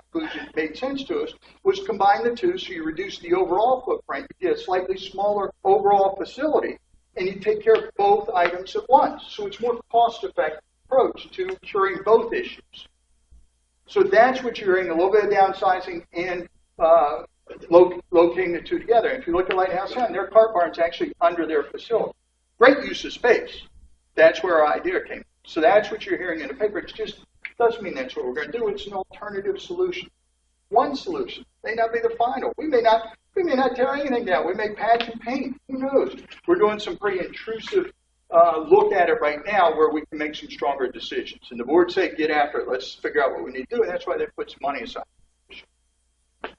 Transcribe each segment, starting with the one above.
conclusion made sense to us, was combine the two, so you reduce the overall footprint, you get a slightly smaller overall facility, and you take care of both items at once. So it's more cost-effective approach to curing both issues. So that's what you're hearing, a little bit of downsizing and uh, lo- locating the two together. If you look at Lighthouse Inn, their car barn's actually under their facility. Great use of space. That's where our idea came. So that's what you're hearing in the paper. It just doesn't mean that's what we're going to do. It's an alternative solution. One solution may not be the final. We may not. We may not tear anything down. We may patch and paint. Who knows? We're doing some pretty intrusive uh, look at it right now where we can make some stronger decisions. And the board said, get after it. Let's figure out what we need to do. And that's why they put some money aside. Hey,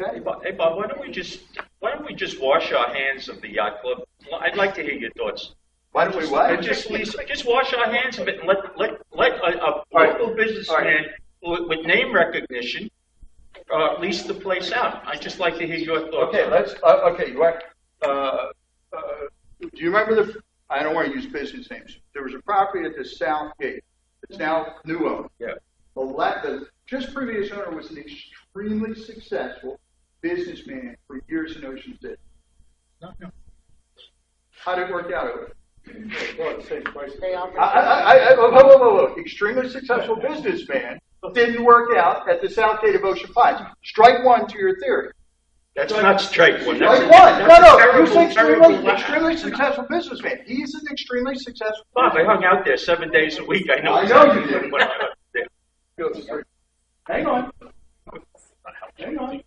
Okay? Bob, hey, Bob, why don't we just, why don't we just wash our hands of the yacht club? Well, I'd like to hear your thoughts. Why don't we what? Uh, Just, Lisa, just wash our hands of it and let, let, let a, a right. local businessman with, with name recognition, uh, lease the place out. I'd just like to hear your thoughts. Okay, let's, uh, okay, you want, uh, uh, do you remember the, I don't want to use business names. There was a property at the south gate. It's now new owned. Yeah. The la- the just previous owner was an extremely successful businessman for years in Ocean City. No, no. How'd it work out over? They offer. I, I, I, I- whoa, whoa, whoa, whoa. Extremely successful businessman didn't work out at the south gate of Ocean Pines. Strike one to your theory. That's not straight one. That's Strike a- one. No, that's a no. You terrible, say extremely, terrible- extremely successful businessman. He's an extremely successful. Bob, I hung out there seven days a week. I know. I know you exactly did. what I was there. Hang on. Hang on.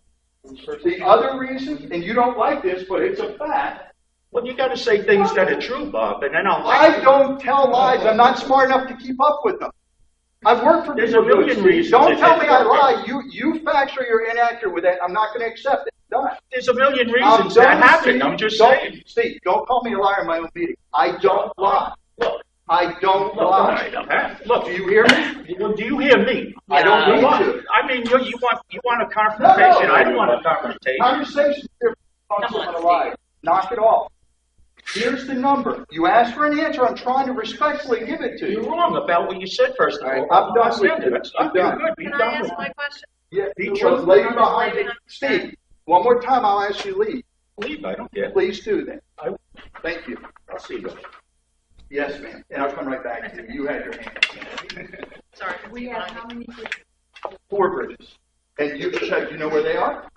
The other reason, and you don't like this, but it's a fact, Well, you gotta say things that are true, Bob, and then I'll. I don't tell lies. I'm not smart enough to keep up with them. I've worked for There's people a million who- reasons Don't that tell they me I don't work. lie. You, you factual, you're inaccurate with that. I'm not going to accept it. Done. There's a million I'm reasons that done, happened. Steve. I'm just Don't- saying. Steve, don't call me a liar in my own meeting. I don't lie. Look, I don't look, all lie. right, huh? look. Do you hear me? Well, do you hear me? I don't You need want- to. I mean, you, you want you want a confrontation. I don't want a confrontation. Conversation's different from Come on, someone Steve. alive. Knock it off. Here's the number. You asked for an answer, I'm trying to respectfully give it to You're you. wrong about what you said first of All right, all. I'm done with Understand you. it. I'm You're done. good. You're Can I done ask with my it. question? Yeah, He it chose was later not to behind leave it. it. Steve, one more time, I'll ask you to leave. Leave, I don't care. Please do that. I- Thank you. I'll see you. Yes, ma'am. And I'll come right back to you. You had your hand. Sorry. We have how many? Four bridges. And you check, you know where they are?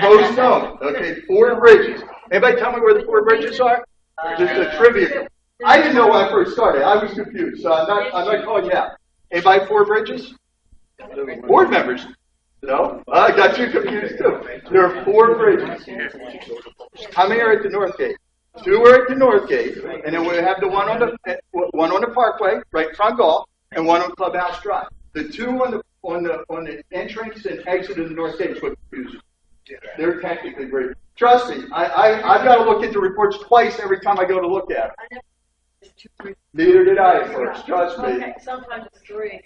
Most know. Okay, four bridges. Anybody tell me where the four bridges are? Just a trivia. I didn't know when I first started. I was confused, so I'm not, I'm not calling you out. Anybody four bridges? Board members? No? I got you confused too. There are four bridges. How many are at the north gate? Two are at the north gate, and then we have the one on the, one on the parkway, right in front of golf, and one on Clubhouse Drive. The two on the, on the, on the entrance and exit of the north gate is what confuses. me. They're technically bridges. Trust me, I, I, I've gotta look at the reports twice every time I go to look at them. Neither did I at first, trust me. Okay, sometimes it's three.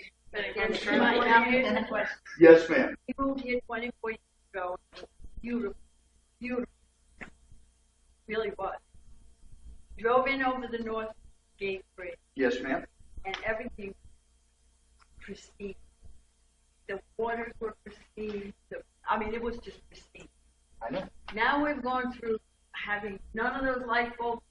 And she might have been a question. Yes, ma'am. We moved here twenty-four years ago, and it was beautiful, beautiful. Really was. Drove in over the North Gate Bridge, Yes, ma'am. and everything pristine. The waters were pristine, the, I mean, it was just pristine. I know. Now we've gone through having none of those light bulbs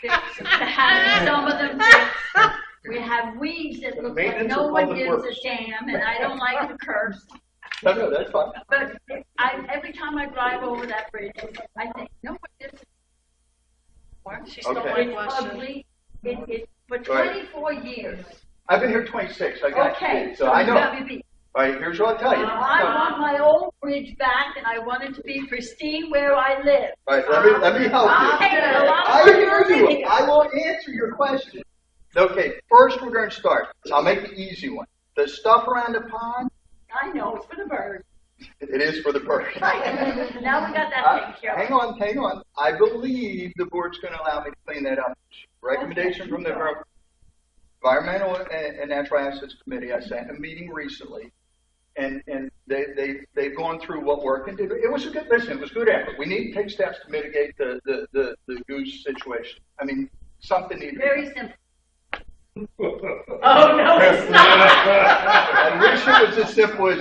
fixed, having some of them fixed. We have weeds that look like maintenance no of one public gives a works. damn, and I don't like the curves. No, no, that's fine. But I, every time I drive over that bridge, I think, no one gives She's still Okay. It's whitewashing. ugly, it, it, for Right. twenty-four years. I've been here twenty-six, I got Okay, Uh-huh. you, so so I know. WB. All right, here's what I'll tell you. I want Uh, my old bridge back, and I want it to be pristine where I live. All right, let me, let me help I'll you. take it, a lot I of hear money. you. I will answer your question. Okay, first we're gonna start. I'll make the easy one. The stuff around the pond, I know, it's for the birds. it is for the birds. Now we got that I- taken care Uh, Hang of. on, hang on. I believe the board's gonna allow me to clean that up. Recommendation from the Environmental and and Natural Assets Committee, I sat in a meeting recently, and, and they, they, they've gone through what work and did. It was a good, listen, it was good effort. We need to take steps to mitigate the, the, the, the goose situation. I mean, something needed. to be Very simple. Oh, no, it's not. I wish it was as simple as